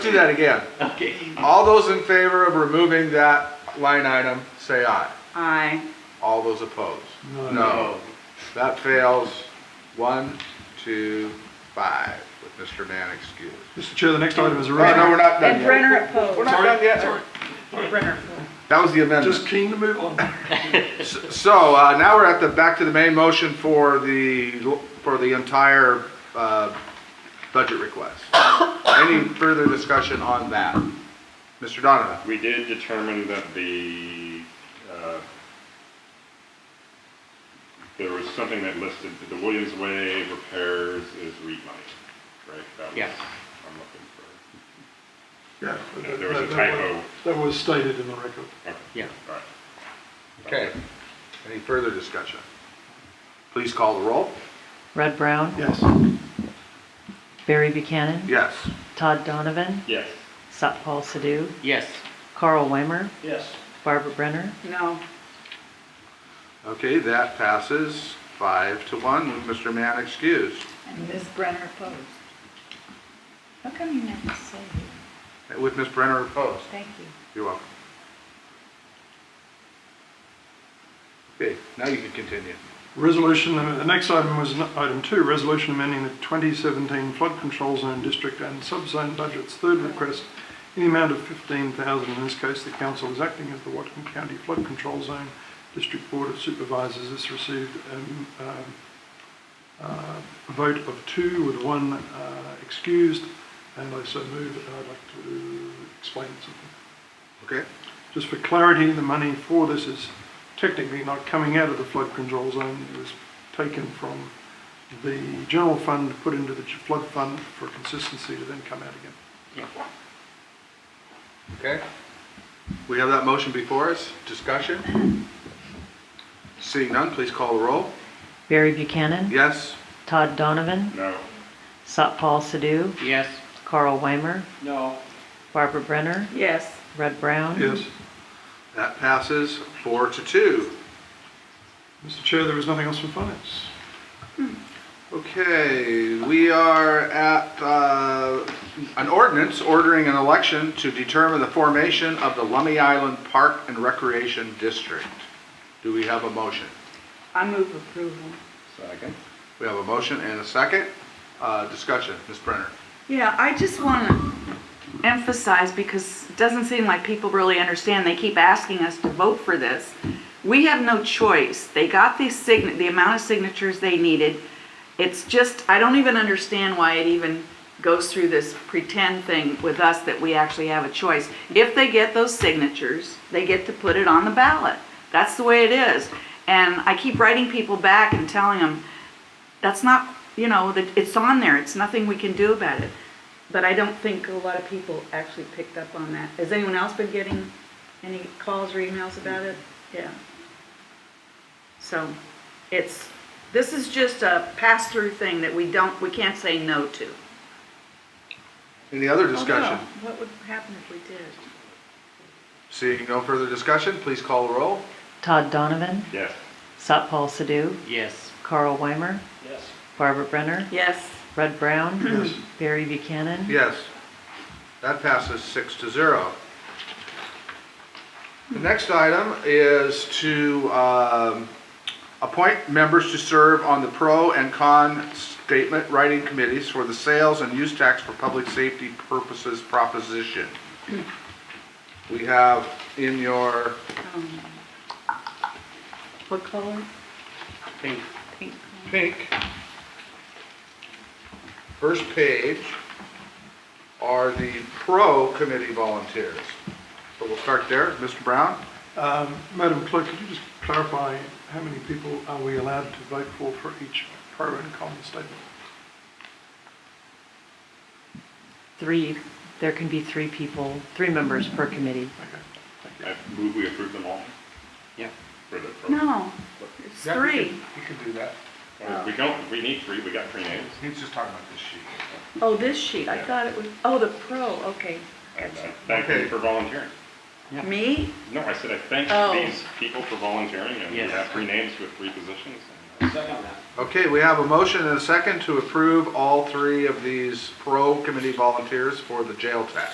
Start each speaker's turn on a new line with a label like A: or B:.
A: Do that again.
B: Okay.
A: All those in favor of removing that line item, say aye.
C: Aye.
A: All those opposed?
B: Oh.
A: No. That fails one, two, five, with Mr. Mann excused.
D: Mr. Chair, the next item is a
A: Oh, no, we're
D: resolution.
A: not done
C: And
A: yet.
C: Brenner
A: We're
C: opposed.
A: not done yet.
C: Brenner.
A: That was the amendment.
D: Just keen to move on.
A: So uh, now we're at the, back to the main motion for the, for the entire uh, budget request. Any further discussion on that? Mr. Donovan?
E: We did determine that the, uh, there was something that listed, the Williams Way repairs is REIT money, right? That was-
B: Yeah.
E: I'm
D: Yeah,
E: looking for, there was a typo,
D: That was stated in the record.
E: okay,
B: Yeah.
E: all right.
A: Okay. Any further discussion? Please call the roll.
F: Red Brown,
D: Yes.
F: Barry Buchanan,
A: Yes.
F: Todd Donovan,
E: Yes.
F: Satpal Sidhu,
B: Yes.
F: Carl Weimer,
E: Yes.
F: Barbara Brenner,
C: No.
A: Okay, that passes five to one with Mr. Mann excused.
C: And Ms. Brenner opposed. How come you never say
A: With Ms. Brenner opposed.
C: thank you?
A: You're welcome. Okay, now you can continue.
D: Resolution, the next item was item two, resolution amending the 2017 flood control zone district and subzone budgets. Third request, in the amount of 15,000. In this case, the council is acting as the Watkin County Flood Control Zone District Board of Supervisors. This received um, um, uh, a vote of two with one uh, excused, and I so move, and I'd like to explain something.
A: Okay?
D: Just for clarity, the money for this is technically not coming out of the flood control zone. It was taken from the general fund, put into the flood fund for consistency to then come out again.
A: Okay. We have that motion before us. Discussion? Seeing none, please call the roll.
F: Barry Buchanan,
A: Yes?
F: Todd Donovan,
E: No,
F: Satpal Sidhu,
B: Yes.
F: Carl Weimer,
B: No.
F: Barbara Brenner,
C: Yes.
F: Red Brown.
D: Yes.
A: That passes four to two.
D: Mr. Chair, there is nothing else from finance.
A: Okay, we are at uh, an ordinance ordering an election to determine the formation of the Lummi Island Park and Recreation District. Do we have a motion?
C: I move approval.
A: Second. We have a motion and a second. Uh, Discussion, Ms. Brenner.
G: Yeah, I just want to emphasize, because it doesn't seem like people really understand, they keep asking us to vote for this. We have no choice. They got the sign, the amount of signatures they needed. It's just, I don't even understand why it even goes through this pretend thing with us that we actually have a choice. If they get those signatures, they get to put it on the ballot. That's the way it is. And I keep writing people back and telling them, that's not, you know, that it's on there, it's nothing we can do about it. But I don't think a lot of people actually picked up on that. Has anyone else been getting any calls or emails about it? Yeah. So, it's, this is just a pass-through thing that we don't, we can't say no to.
A: Any other
G: Oh,
A: discussion?
G: Although, What would happen if we did?
A: Seeing no further discussion, please call the roll.
F: Todd Donovan,
E: yes.
F: Satpal Sidhu,
B: Yes.
F: Carl Weimer,
B: Yes.
F: Barbara Brenner,
G: Yes,
F: Red Brown,
D: Yes.
F: Barry Buchanan,
A: Yes. That passes six to zero. The next item is to um, appoint members to serve on the pro and con statement writing committees for the sales and use tax for public safety purposes proposition. We have in your,
G: what color?
B: Pink.
G: Pink.
A: pink. First page are the pro committee volunteers. So we'll start there. Mr. Brown?
D: Um, Madam Clerk, could you just clarify how many people are we allowed to vote for for each pro and con statement?
F: three, there can be three people, three members per committee.
D: Okay.
E: I move we approve them all
B: Yeah.
E: for the. pro-
G: No, it's
A: Yeah, you
G: three.
A: can- You can do that.
E: Well, We don't, we need three, we got three names.
A: He's just talking about this sheet.
G: Oh, this sheet, I thought it was, oh, the pro, okay.
E: I- I uh, Thank you
A: Okay.
E: for volunteering.
B: Yeah.
G: Me?
E: No, I said I thank
G: Oh.
E: these people for volunteering, and we
B: Yes.
E: have three names with three positions.
A: Okay, we have a motion and a second to approve all three of these pro committee volunteers for the jail tax.